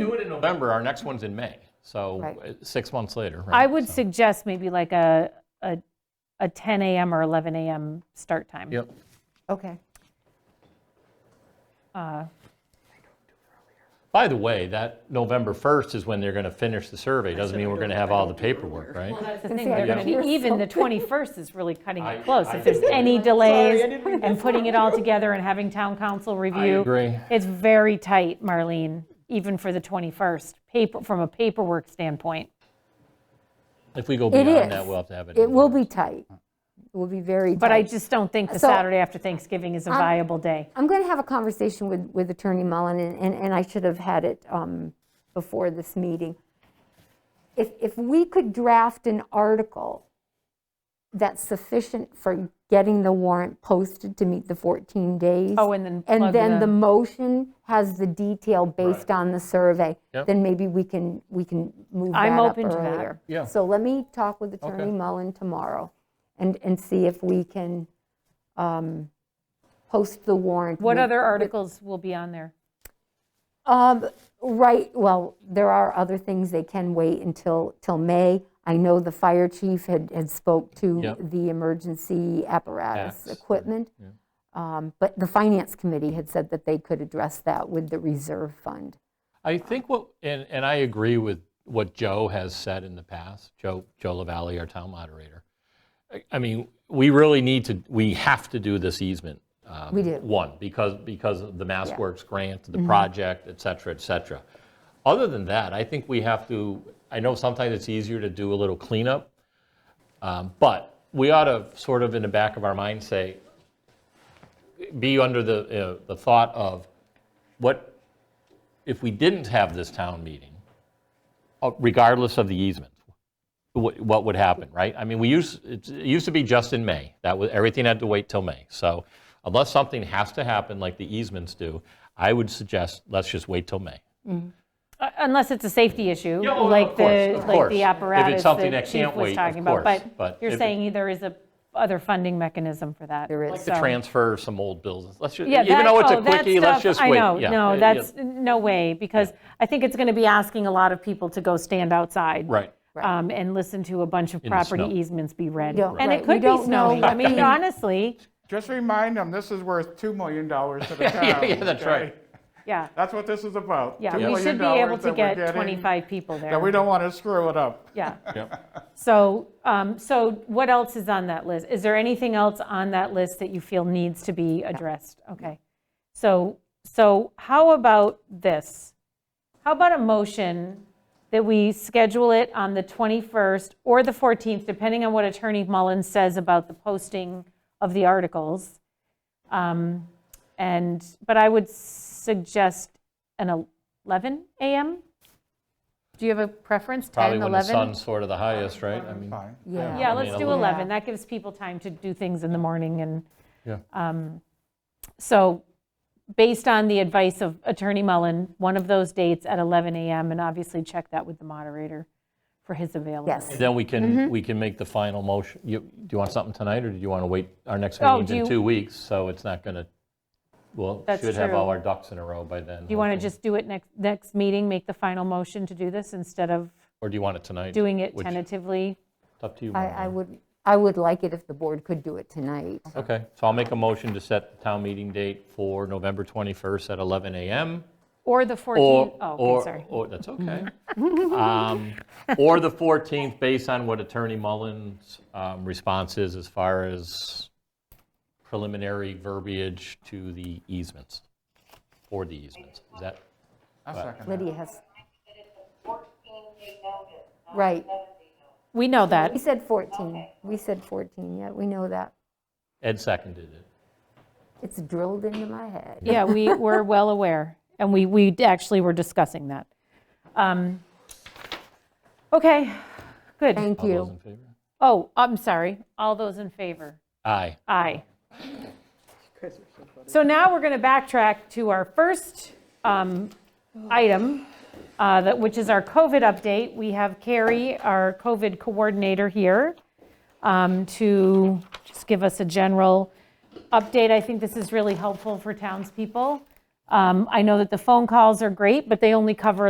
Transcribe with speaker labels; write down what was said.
Speaker 1: do it in November, our next one's in May, so
Speaker 2: Right.
Speaker 1: uh, six months later, right?
Speaker 2: I would
Speaker 1: So-
Speaker 2: suggest maybe like a, a, a 10 AM or 11 AM start time.
Speaker 1: Yep,
Speaker 3: Okay.
Speaker 1: by the way, that November 1st is when they're going to finish the survey, doesn't mean we're going to have all the paperwork, right?
Speaker 2: That's the thing,
Speaker 3: say, I
Speaker 2: they're
Speaker 3: thought
Speaker 2: gonna
Speaker 3: you were
Speaker 2: be, even the 21st is really cutting
Speaker 1: I-
Speaker 2: it close.
Speaker 1: I
Speaker 2: If there's
Speaker 1: agree.
Speaker 2: any
Speaker 3: Sorry,
Speaker 2: delays
Speaker 3: I didn't mean to
Speaker 2: and putting it all together and having town council review.
Speaker 1: agree.
Speaker 2: It's very tight, Marlene, even for the 21st, paper, from a paperwork standpoint.
Speaker 1: If we go
Speaker 3: It
Speaker 1: beyond that,
Speaker 3: is.
Speaker 1: we'll have to have it.
Speaker 3: It will be tight. It will be very tight.
Speaker 2: But I just don't think the
Speaker 3: So-
Speaker 2: Saturday after Thanksgiving is a viable day.
Speaker 3: I'm going to have a conversation with, with Attorney Mullen, and, and- and I should have had it um, before this meeting. If, if we could draft an article that's sufficient for getting the warrant posted to meet the 14 days.
Speaker 2: Oh, and then plug
Speaker 3: And then the
Speaker 2: the-
Speaker 3: motion has the detail based on the survey,
Speaker 1: Yep.
Speaker 3: then maybe we can, we can move that
Speaker 2: I'm
Speaker 3: up
Speaker 2: open to that.
Speaker 3: earlier.
Speaker 1: Yeah.
Speaker 3: So let me talk with Attorney
Speaker 1: Okay.
Speaker 3: Mullen tomorrow and, and see if we can um, post the warrant.
Speaker 2: What
Speaker 3: with-
Speaker 2: other articles will be on there?
Speaker 3: um, Right, well, there are other things, they can wait until, till May. I know the fire chief had, had spoke to
Speaker 1: Yep.
Speaker 3: the emergency apparatus
Speaker 1: Acts, right,
Speaker 3: equipment. Um, But the finance committee had said that they could address that with the reserve fund.
Speaker 1: I think what, and, and I agree with what Joe has said in the past, Joe, Joe LaValle, our town moderator. I- I mean, we really need to, we have to do this easement. um,
Speaker 3: We do. Mm-hmm.
Speaker 1: One, because, because of the Mass Works grant, the project, et cetera, et cetera. Other than that, I think we have to, I know sometimes it's easier to do a little cleanup, um, but we ought to sort of in the back of our mind say, be under the, uh, the thought of what if we didn't have this town meeting, uh, regardless of the easement, wh- what would happen, right? I mean, we used, it's- it used to be just in May. That was, everything had to wait till May. So unless something has to happen like the easements do, I would suggest, let's just wait till May.
Speaker 2: Uh, Unless it's a safety issue,
Speaker 1: Yeah, oh, no,
Speaker 2: like
Speaker 1: of course,
Speaker 2: the,
Speaker 1: of
Speaker 2: like
Speaker 1: course. If
Speaker 2: the
Speaker 1: it's
Speaker 2: apparatus
Speaker 1: something
Speaker 2: that
Speaker 1: that
Speaker 2: Chief
Speaker 1: can't wait,
Speaker 2: was
Speaker 1: of
Speaker 2: talking about.
Speaker 1: course,
Speaker 2: But
Speaker 1: but
Speaker 2: you're
Speaker 1: if it-
Speaker 2: saying there is a other funding mechanism for that.
Speaker 3: There is.
Speaker 1: Like to
Speaker 2: So-
Speaker 1: transfer some old bills, let's just,
Speaker 2: Yeah,
Speaker 1: even
Speaker 2: that-
Speaker 1: though it's a
Speaker 2: oh, that
Speaker 1: quickie, let's
Speaker 2: stuff,
Speaker 1: just
Speaker 2: I
Speaker 1: wait.
Speaker 2: know,
Speaker 1: Yeah,
Speaker 2: No,
Speaker 1: it- it-
Speaker 2: that's, no way, because I think it's going to be asking a lot of people to go stand outside.
Speaker 1: Right.
Speaker 2: um, And listen to a bunch of
Speaker 1: the
Speaker 2: property
Speaker 1: snow.
Speaker 2: easements be read.
Speaker 3: We don't-
Speaker 2: And
Speaker 3: right,
Speaker 2: it
Speaker 3: we
Speaker 2: could be
Speaker 3: don't know
Speaker 2: snowy. I
Speaker 3: what
Speaker 2: mean, honestly,
Speaker 4: Just remind them, this is worth $2 million to the town.
Speaker 1: yeah, that's
Speaker 4: okay?
Speaker 1: right.
Speaker 2: yeah,
Speaker 4: That's what this is about.
Speaker 2: yeah,
Speaker 4: $2
Speaker 2: we
Speaker 4: million
Speaker 2: should be able
Speaker 4: that
Speaker 2: to
Speaker 4: we're
Speaker 2: get
Speaker 4: getting,
Speaker 2: 25 people there.
Speaker 4: That we don't want to screw it up.
Speaker 2: Yeah.
Speaker 1: Yep.
Speaker 2: So, um, so what else is on that list? Is there anything else on that list that you feel needs to be addressed? Okay. So, so how about this? How about a motion that we schedule it on the 21st or the 14th, depending on what Attorney Mullin says about the posting of the articles? Um, And, but I would suggest an 11 a.m.? Do you have a preference, 10,
Speaker 1: Probably
Speaker 2: 11?
Speaker 1: when the sun's sort of the highest, right? I mean,
Speaker 4: Fine.
Speaker 3: Yeah.
Speaker 2: Yeah,
Speaker 1: I
Speaker 2: let's
Speaker 1: mean,
Speaker 2: do
Speaker 1: a-
Speaker 2: 11. That gives people time to do things in the morning and,
Speaker 1: Yeah.
Speaker 2: um, so based on the advice of Attorney Mullen, one of those dates at 11 AM, and obviously check that with the moderator for his availability.
Speaker 3: Yes.
Speaker 1: then we
Speaker 2: Mm-hmm.
Speaker 1: can, we can make the final motion. You, do you want something tonight, or do you want to wait? Our next
Speaker 2: Oh,
Speaker 1: meeting's
Speaker 2: do
Speaker 1: in
Speaker 2: you-
Speaker 1: two weeks, so it's not going to, well,
Speaker 2: That's
Speaker 1: should have
Speaker 2: true.
Speaker 1: all our ducks in a row by then.
Speaker 2: Do you want to just do it next, next meeting, make the final motion to do this instead of
Speaker 1: Or do you want it tonight?
Speaker 2: doing it
Speaker 1: Which-
Speaker 2: tentatively?
Speaker 1: It's up to you.
Speaker 3: I,
Speaker 1: Marlene.
Speaker 3: I would, I would like it if the board could do it tonight.
Speaker 1: Okay, so I'll make a motion to set the town meeting date for November 21st at 11 a.m.
Speaker 2: Or the 14th?
Speaker 1: Or,
Speaker 2: Oh, okay,
Speaker 1: or,
Speaker 2: sorry. Mm-hmm.
Speaker 1: or, that's okay. Um, Or the 14th, based on what Attorney Mullen's um, response is as far as preliminary verbiage to the easements, for the easements. Is that,
Speaker 4: I'll second that.
Speaker 3: Lydia has,
Speaker 5: fourteen-day notice, not
Speaker 3: right.
Speaker 5: seven-day notice.
Speaker 2: We know
Speaker 3: We
Speaker 2: that.
Speaker 3: said 14. We said 14, yeah, we know that.
Speaker 1: Ed seconded it.
Speaker 3: It's drilled into my head.
Speaker 2: Yeah, we were well aware, and we, we actually were discussing that. Um, Okay, good.
Speaker 3: Thank
Speaker 1: All those
Speaker 3: you.
Speaker 1: in favor?
Speaker 2: Oh, I'm sorry. All those in favor?
Speaker 1: Aye.
Speaker 2: Aye. So now we're going to backtrack to our first um, item, uh, that- which is our COVID update. We have Carrie, our COVID coordinator here, um, to just give us a general update. I think this is really helpful for townspeople. Um, I know that the phone calls are great, but they only cover